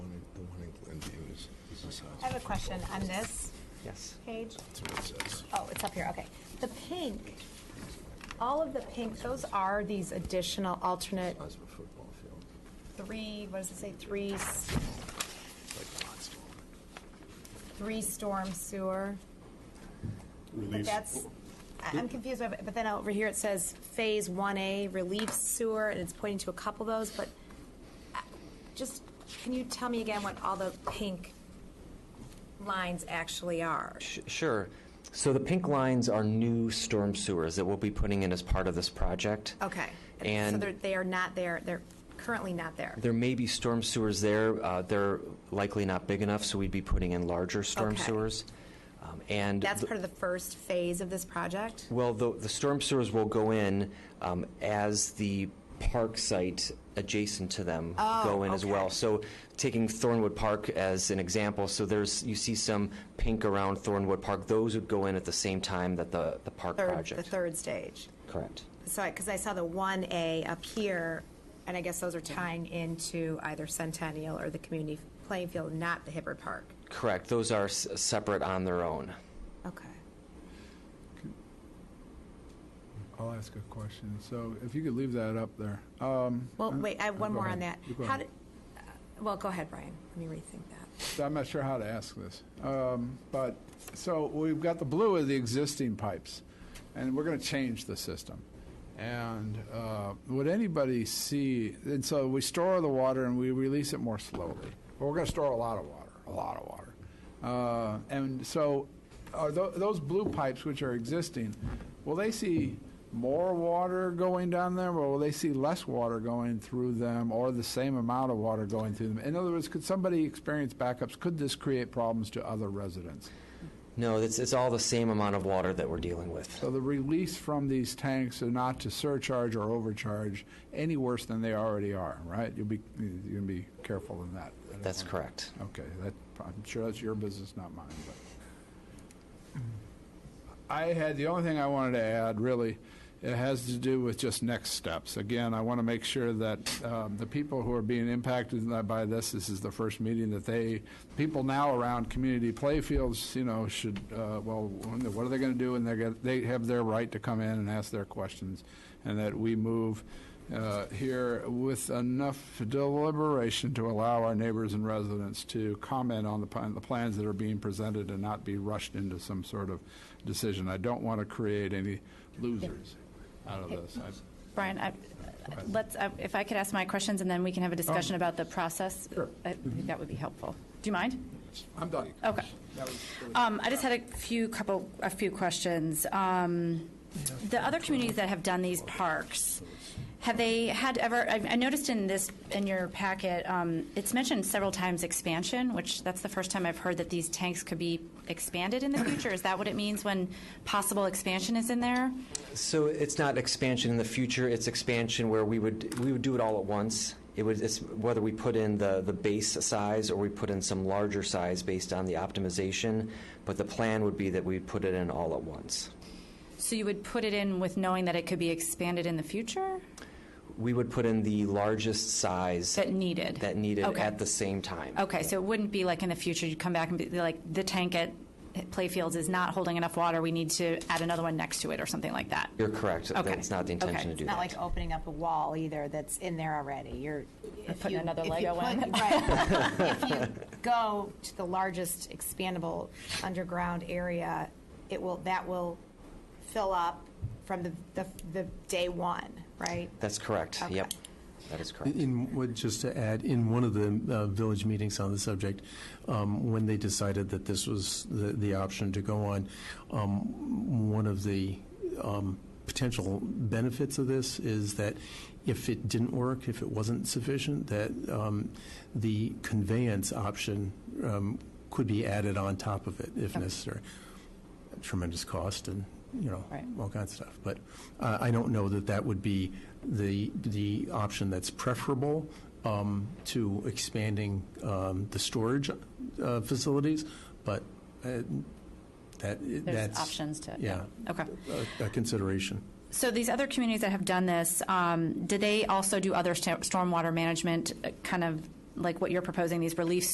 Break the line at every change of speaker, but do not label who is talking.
I have a question on this
Yes.
page.
That's what it says.
Oh, it's up here, okay. The pink, all of the pink, those are these additional alternate
Size of a football field,
three, what does it say, three, s-
like lots of
three storm sewer? But
Release.
that's, I- I'm confused, by- but then over here it says Phase 1A relief sewer, and it's pointing to a couple of those, but uh, just, can you tell me again what all the pink lines actually are?
Sh- Sure. So the pink lines are new storm sewers that we'll be putting in as part of this project.
Okay. So
And-
they're- they are not there, they're currently not there.
There may be storm sewers there. Uh, They're likely not big enough, so we'd be putting in larger storm
Okay.
sewers. Um, And.
That's
the-
part of the first phase of this project?
Well, the, the storm sewers will go in um, as the park site adjacent to them go in as well.
Oh, okay.
So, taking Thornwood Park as an example, so there's you see some pink around Thornwood Park. Those would go in at the same time that the the park
Third,
project.
the third stage?
Correct.
So, because I saw the 1A up here, and I guess those are tying into either Centennial or the community playing field, not the Hibbert Park.
Correct. Those are s- separate on their own.
Okay.
I'll ask a question. So if you could leave that up there. Um,
Well, wait, I have one
go
more on that.
ahead. You go
How
ahead.
did- uh, Well, go ahead, Brian. Let me rethink that.
So I'm not sure how to ask this. Um, But, so we've got the blue of the existing pipes, and we're going to change the system. And uh, would anybody see, and so we store the water and we release it more slowly. But we're going to store a lot of water, a lot of water. Uh, And so are tho- those blue pipes which are existing, will they see more water going down there, or will they see less water going through them, or the same amount of water going through them? In other words, could somebody experience backups? Could this create problems to other residents?
No, it's, it's all the same amount of water that we're dealing with.
So the release from these tanks are not to surcharge or overcharge any worse than they already are, right? You'll be, you're going to be careful in that. I don't
That's
wanna-
correct.
Okay, that, I'm sure that's your business, not mine, but. I had, the only thing I wanted to add, really, it has to do with just next steps. Again, I want to make sure that um, the people who are being impacted by this, this is the first meeting that they, people now around community playfields, you know, should, uh, well, when- what are they going to do? And they're, gonna- they have their right to come in and ask their questions, and that we move uh, here with enough deliberation to allow our neighbors and residents to comment on the, pl- the plans that are being presented and not be rushed into some sort of decision. I don't want to create any losers out of this. I-
Brian, I- let's, I- if I could ask my questions, and then we can have a discussion about the process.
Oh. Sure.
I think that would be helpful. Do you mind?
I'm done.
Okay.
That was- that was-
Um, I just had a few couple, a few questions. Um, The other communities that have done these parks, have they had ever, I I noticed in this, in your packet, um, it's mentioned several times expansion, which that's the first time I've heard that these tanks could be expanded in the future. Is that what it means when possible expansion is in there?
So it's not expansion in the future, it's expansion where we would, we would do it all at once. It would, it's whether we put in the, the base size or we put in some larger size based on the optimization, but the plan would be that we'd put it in all at once.
So you would put it in with knowing that it could be expanded in the future?
We would put in the largest size
That needed?
that needed
Okay.
at the same time.
Okay, so it wouldn't be like in the future, you'd come back and be like, the tank at Playfields is not holding enough water, we need to add another one next to it or something like that?
You're correct,
Okay.
that's not the intention to
Okay.
do
It's
that.
not like opening up a wall either that's in there already. You're. if
putting
you-
another
if you
Lego
put-
in.
Right. If you go to the largest expandable underground area, it will, that will fill up from the, the, the day one, right?
That's correct,
Okay.
yep, that is correct.
In, what- just to add, in one of the uh, village meetings on the subject, um, when they decided that this was the, the option to go on, um, one of the um, potential benefits of this is that if it didn't work, if it wasn't sufficient, that um, the conveyance option um, could be added on top of it if necessary. Tremendous cost and, you know,
Right.
all kinds of stuff. But uh, I don't know that that would be the, the option that's preferable um, to expanding um, the storage uh, facilities, but uh, that,
There's
that's.
options to, yeah,
Yeah.
okay.
A a consideration.
So these other communities that have done this, um, do they also do other sta- stormwater management, uh, kind of like what you're proposing, these relief